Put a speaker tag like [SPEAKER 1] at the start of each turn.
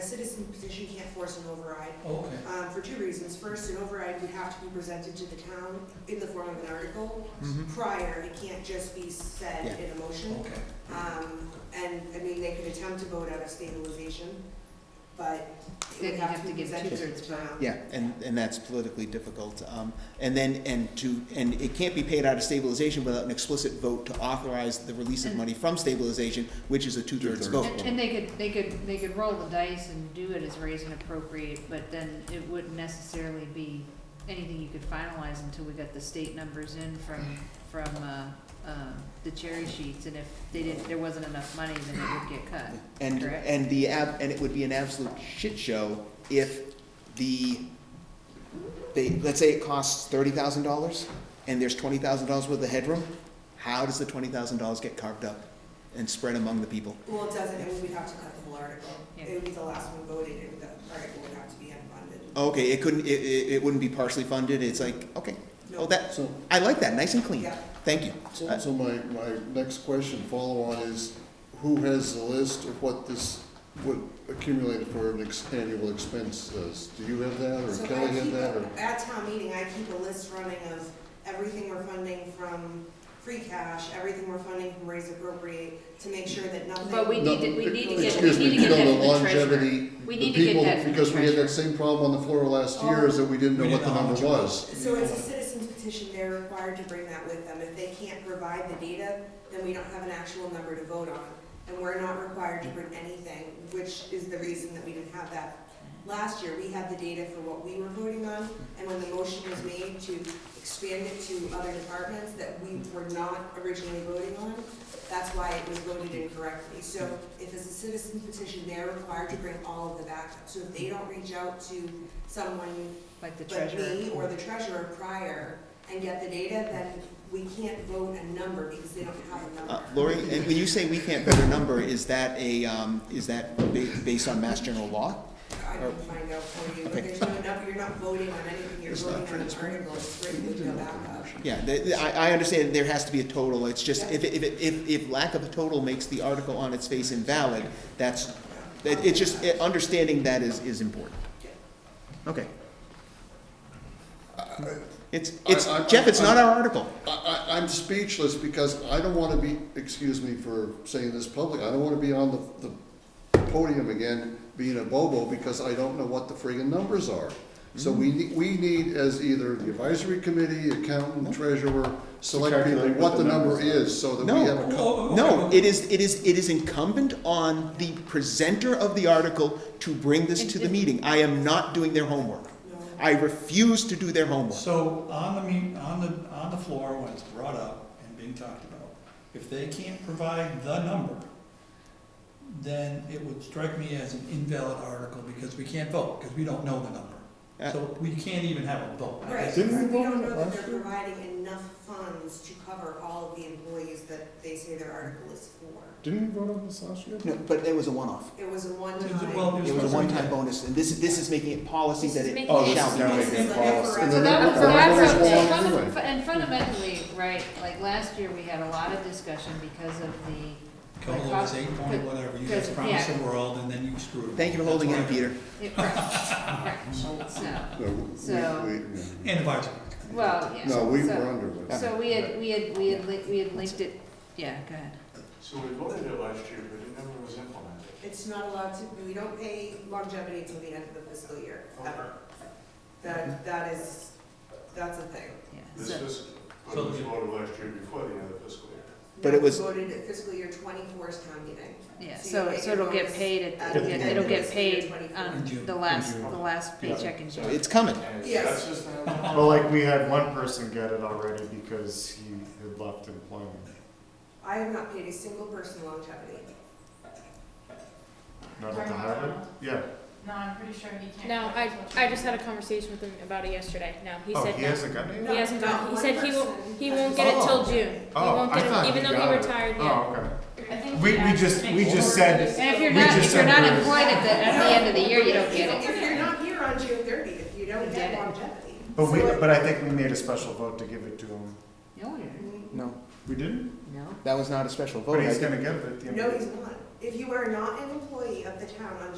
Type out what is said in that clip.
[SPEAKER 1] citizen petition can't force an override,
[SPEAKER 2] Okay,
[SPEAKER 1] um, for two reasons. First, an override would have to be presented to the town in the form of an article
[SPEAKER 3] Mhm.
[SPEAKER 1] prior, it can't just be said
[SPEAKER 3] Yeah.
[SPEAKER 1] in a motion.
[SPEAKER 2] okay.
[SPEAKER 1] Um, and, I mean, they could attempt to vote out of stabilization, but it
[SPEAKER 4] Then
[SPEAKER 1] would
[SPEAKER 4] you'd
[SPEAKER 1] have
[SPEAKER 4] have
[SPEAKER 1] to be
[SPEAKER 4] to give
[SPEAKER 1] presented to
[SPEAKER 4] two-thirds
[SPEAKER 1] the
[SPEAKER 4] vote.
[SPEAKER 1] town.
[SPEAKER 3] Yeah, and, and that's politically difficult. Um, and then, and to, and it can't be paid out of stabilization without an explicit vote to authorize the release of money from stabilization, which is a two-thirds
[SPEAKER 2] Two-thirds.
[SPEAKER 3] vote.
[SPEAKER 4] And, and they could, they could, they could roll the dice and do it as raise and appropriate, but then it wouldn't necessarily be anything you could finalize until we got the state numbers in from, from, uh, um, the cherry sheets, and if they didn't, there wasn't enough money, then it would get cut.
[SPEAKER 3] And,
[SPEAKER 4] Correct.
[SPEAKER 3] and the, ab- and it would be an absolute shit show if the, they, let's say it costs thirty thousand dollars and there's twenty thousand dollars worth of headroom, how does the twenty thousand dollars get carved up and spread among the people?
[SPEAKER 1] Well, it doesn't, and we'd have to cut the whole article.
[SPEAKER 4] Yeah.
[SPEAKER 1] It would be the last one voted, and the article would have to be unfunded.
[SPEAKER 3] Okay, it couldn't, it, it, it wouldn't be partially funded, it's like, okay, oh,
[SPEAKER 1] No.
[SPEAKER 3] that,
[SPEAKER 5] So,
[SPEAKER 3] I like that, nice and clean,
[SPEAKER 1] Yeah,
[SPEAKER 3] thank you.
[SPEAKER 5] so, so my, my next question, follow-on is, who has the list of what this would accumulate for an ex- annual expense is? Do you have that,
[SPEAKER 1] so
[SPEAKER 5] or
[SPEAKER 1] I
[SPEAKER 5] Kelly
[SPEAKER 1] keep,
[SPEAKER 5] have that,
[SPEAKER 1] a-
[SPEAKER 5] or?
[SPEAKER 1] at town meeting, I keep a list running of everything we're funding from free cash, everything we're funding from raise appropriate, to make sure that nothing.
[SPEAKER 4] But we
[SPEAKER 5] No,
[SPEAKER 4] need to, we need to get, we
[SPEAKER 5] excuse me,
[SPEAKER 4] need to get
[SPEAKER 5] no,
[SPEAKER 4] that
[SPEAKER 5] the
[SPEAKER 4] from the treasurer.
[SPEAKER 5] longevity,
[SPEAKER 4] We
[SPEAKER 5] the
[SPEAKER 4] need to get
[SPEAKER 5] people-
[SPEAKER 4] that from the
[SPEAKER 5] Because we had
[SPEAKER 4] treasurer.
[SPEAKER 5] that same problem on the floor last year, is that we didn't know
[SPEAKER 2] We
[SPEAKER 5] what
[SPEAKER 2] didn't know
[SPEAKER 5] the
[SPEAKER 2] how much
[SPEAKER 5] number
[SPEAKER 2] it
[SPEAKER 5] was.
[SPEAKER 1] So it's a citizen's petition, they're required to bring that with them. If they can't provide the data, then we don't have an actual number to vote on. And we're not required to bring anything, which is the reason that we didn't have that. Last year, we had the data for what we were voting on, and when the motion was made to expand it to other departments that we were not originally voting on, that's why it was voted incorrectly. So if it's a citizen's petition, they're required to bring all of the backup. So if they don't reach out to someone
[SPEAKER 4] Like the
[SPEAKER 1] but me
[SPEAKER 4] treasurer.
[SPEAKER 1] or the treasurer prior and get the data, then we can't vote a number because they don't have a
[SPEAKER 3] Uh,
[SPEAKER 1] number.
[SPEAKER 3] Lori, and when you say we can't vote a number, is that a, um, is that ba- based on mass general law?
[SPEAKER 1] I can find out for you, but
[SPEAKER 3] Okay.
[SPEAKER 1] there's no number, you're not voting on anything, you're
[SPEAKER 5] It's not
[SPEAKER 1] voting on an
[SPEAKER 5] transparent.
[SPEAKER 1] article, it's written with no backup.
[SPEAKER 3] Yeah, th- th- I, I understand there has to be a total, it's just, if, if, if, if lack of a total makes the article on its face invalid, that's, it, it's just, it- understanding that is, is important. Okay. It's, it's,
[SPEAKER 5] Uh, I- I-
[SPEAKER 3] Jeff, it's not
[SPEAKER 5] I-
[SPEAKER 3] our article.
[SPEAKER 5] I, I, I'm speechless because I don't want to be, excuse me for saying this publicly, I don't want to be on the, the podium again being a bobo because I don't know what the friggin' numbers are. So we, ne- we need as either the advisory committee, accountant, treasurer, select people,
[SPEAKER 6] calculate
[SPEAKER 5] what the number
[SPEAKER 6] numbers are.
[SPEAKER 5] is so that we
[SPEAKER 3] No.
[SPEAKER 5] have a. co-
[SPEAKER 2] Oh,
[SPEAKER 3] No,
[SPEAKER 2] okay.
[SPEAKER 3] it is, it is, it is incumbent on the presenter of the article to bring this to the meeting. I am not doing their homework.
[SPEAKER 1] No.
[SPEAKER 3] I refuse to do their homework.
[SPEAKER 2] So on the meet, on the, on the floor, when it's brought up and being talked about, if they can't provide the number, then it would strike me as an invalid article because we can't vote, because we don't know the number.
[SPEAKER 3] Uh,
[SPEAKER 2] So we can't even have a vote. I
[SPEAKER 1] Right,
[SPEAKER 2] guess
[SPEAKER 1] so we
[SPEAKER 6] Didn't we vote
[SPEAKER 1] don't
[SPEAKER 6] on it
[SPEAKER 1] know that
[SPEAKER 6] last
[SPEAKER 1] they're
[SPEAKER 6] year?
[SPEAKER 1] providing enough funds to cover all of the employees that they say their article is for.
[SPEAKER 6] Didn't we vote on this last year?
[SPEAKER 3] No, but it was a one-off.
[SPEAKER 1] It was a
[SPEAKER 2] It
[SPEAKER 1] one-time.
[SPEAKER 2] was a- well,
[SPEAKER 3] It was a one-time bonus, and this is, this is making it policy
[SPEAKER 4] This
[SPEAKER 3] that
[SPEAKER 4] is
[SPEAKER 3] it
[SPEAKER 4] making it- Oh, this
[SPEAKER 3] shall
[SPEAKER 4] is
[SPEAKER 3] be.
[SPEAKER 6] now
[SPEAKER 3] made.
[SPEAKER 6] making
[SPEAKER 1] It's like
[SPEAKER 6] policy.
[SPEAKER 1] for
[SPEAKER 5] And
[SPEAKER 1] us.
[SPEAKER 4] So
[SPEAKER 5] then
[SPEAKER 4] that was,
[SPEAKER 5] Or
[SPEAKER 4] that's,
[SPEAKER 5] numbers
[SPEAKER 4] what-
[SPEAKER 5] wrong
[SPEAKER 4] funda-
[SPEAKER 5] anyway.
[SPEAKER 4] and fundamentally, right, like last year, we had a lot of discussion because of the,
[SPEAKER 2] Couple of those eight point whatever, you guys promised the world and then you screwed it.
[SPEAKER 3] Thank you for holding in,
[SPEAKER 2] That's why-
[SPEAKER 3] Peter.
[SPEAKER 4] it, right, right, so.
[SPEAKER 5] No, we-
[SPEAKER 4] So-
[SPEAKER 5] we- we-
[SPEAKER 2] And the vice.
[SPEAKER 4] Well, yeah.
[SPEAKER 5] No, we
[SPEAKER 4] so-
[SPEAKER 5] were under it.
[SPEAKER 4] So we had, we had, we had, li- we had linked it, yeah, go ahead.
[SPEAKER 7] So we voted it last year, but it never was implemented.
[SPEAKER 1] It's not allowed to, we don't pay longevity until the end of the fiscal year, ever. That, that is, that's a thing.
[SPEAKER 4] Yeah,
[SPEAKER 7] This
[SPEAKER 4] so-
[SPEAKER 7] is, but it was voted last year before the end of the fiscal year.
[SPEAKER 3] But
[SPEAKER 1] No,
[SPEAKER 3] it was-
[SPEAKER 1] Voted at fiscal year twenty-four's town meeting.
[SPEAKER 4] Yeah,
[SPEAKER 1] So you
[SPEAKER 4] so,
[SPEAKER 1] make
[SPEAKER 4] so
[SPEAKER 1] your
[SPEAKER 4] it'll get
[SPEAKER 1] bonus
[SPEAKER 4] paid,
[SPEAKER 1] at
[SPEAKER 4] at- it'll
[SPEAKER 1] the
[SPEAKER 4] get,
[SPEAKER 1] end
[SPEAKER 4] it'll
[SPEAKER 1] of
[SPEAKER 4] get
[SPEAKER 1] fiscal year
[SPEAKER 4] paid um,
[SPEAKER 1] 24.
[SPEAKER 2] In
[SPEAKER 4] on
[SPEAKER 2] June,
[SPEAKER 4] the
[SPEAKER 2] in
[SPEAKER 4] last,
[SPEAKER 2] June.
[SPEAKER 4] the last
[SPEAKER 6] Yeah.
[SPEAKER 4] paycheck in June.
[SPEAKER 3] It's coming.
[SPEAKER 7] And
[SPEAKER 1] Yes.
[SPEAKER 7] that's just not-
[SPEAKER 6] Well, like, we had one person get it already because he had left employment.
[SPEAKER 1] I have not paid a single person longevity.
[SPEAKER 6] Not at the Harvard? Yeah.
[SPEAKER 8] No, I, I just had a conversation with him about it yesterday. No, he
[SPEAKER 6] Oh,
[SPEAKER 8] said
[SPEAKER 6] he
[SPEAKER 8] no.
[SPEAKER 6] hasn't gotten it?
[SPEAKER 8] He hasn't
[SPEAKER 1] No,
[SPEAKER 8] got,
[SPEAKER 1] not
[SPEAKER 8] he said he
[SPEAKER 1] one
[SPEAKER 8] won't,
[SPEAKER 1] person.
[SPEAKER 8] he won't get it till June. He
[SPEAKER 6] Oh,
[SPEAKER 8] won't
[SPEAKER 6] I
[SPEAKER 8] get
[SPEAKER 6] thought
[SPEAKER 8] it,
[SPEAKER 6] he
[SPEAKER 8] even though
[SPEAKER 6] got
[SPEAKER 8] he
[SPEAKER 6] it.
[SPEAKER 8] retired, yeah.
[SPEAKER 6] Oh, okay. We, we just, we just said,
[SPEAKER 4] And if you're
[SPEAKER 6] We
[SPEAKER 4] not,
[SPEAKER 6] just
[SPEAKER 4] if you're not
[SPEAKER 6] said-
[SPEAKER 4] employed at the, at the end of the year, you don't get
[SPEAKER 1] If
[SPEAKER 4] it.
[SPEAKER 1] you're not here on June thirtieth, you don't
[SPEAKER 4] You
[SPEAKER 1] get
[SPEAKER 4] get it.
[SPEAKER 1] longevity.
[SPEAKER 6] but we,
[SPEAKER 1] So it-
[SPEAKER 6] but I think we made a special vote to give it to him.
[SPEAKER 4] No, you didn't.
[SPEAKER 3] No,
[SPEAKER 6] We didn't?
[SPEAKER 4] no.
[SPEAKER 3] that was not a special vote.
[SPEAKER 6] But
[SPEAKER 3] I
[SPEAKER 6] he's
[SPEAKER 3] did-
[SPEAKER 6] gonna get it at the end of the
[SPEAKER 1] No, he's not. If you are not an employee of the town on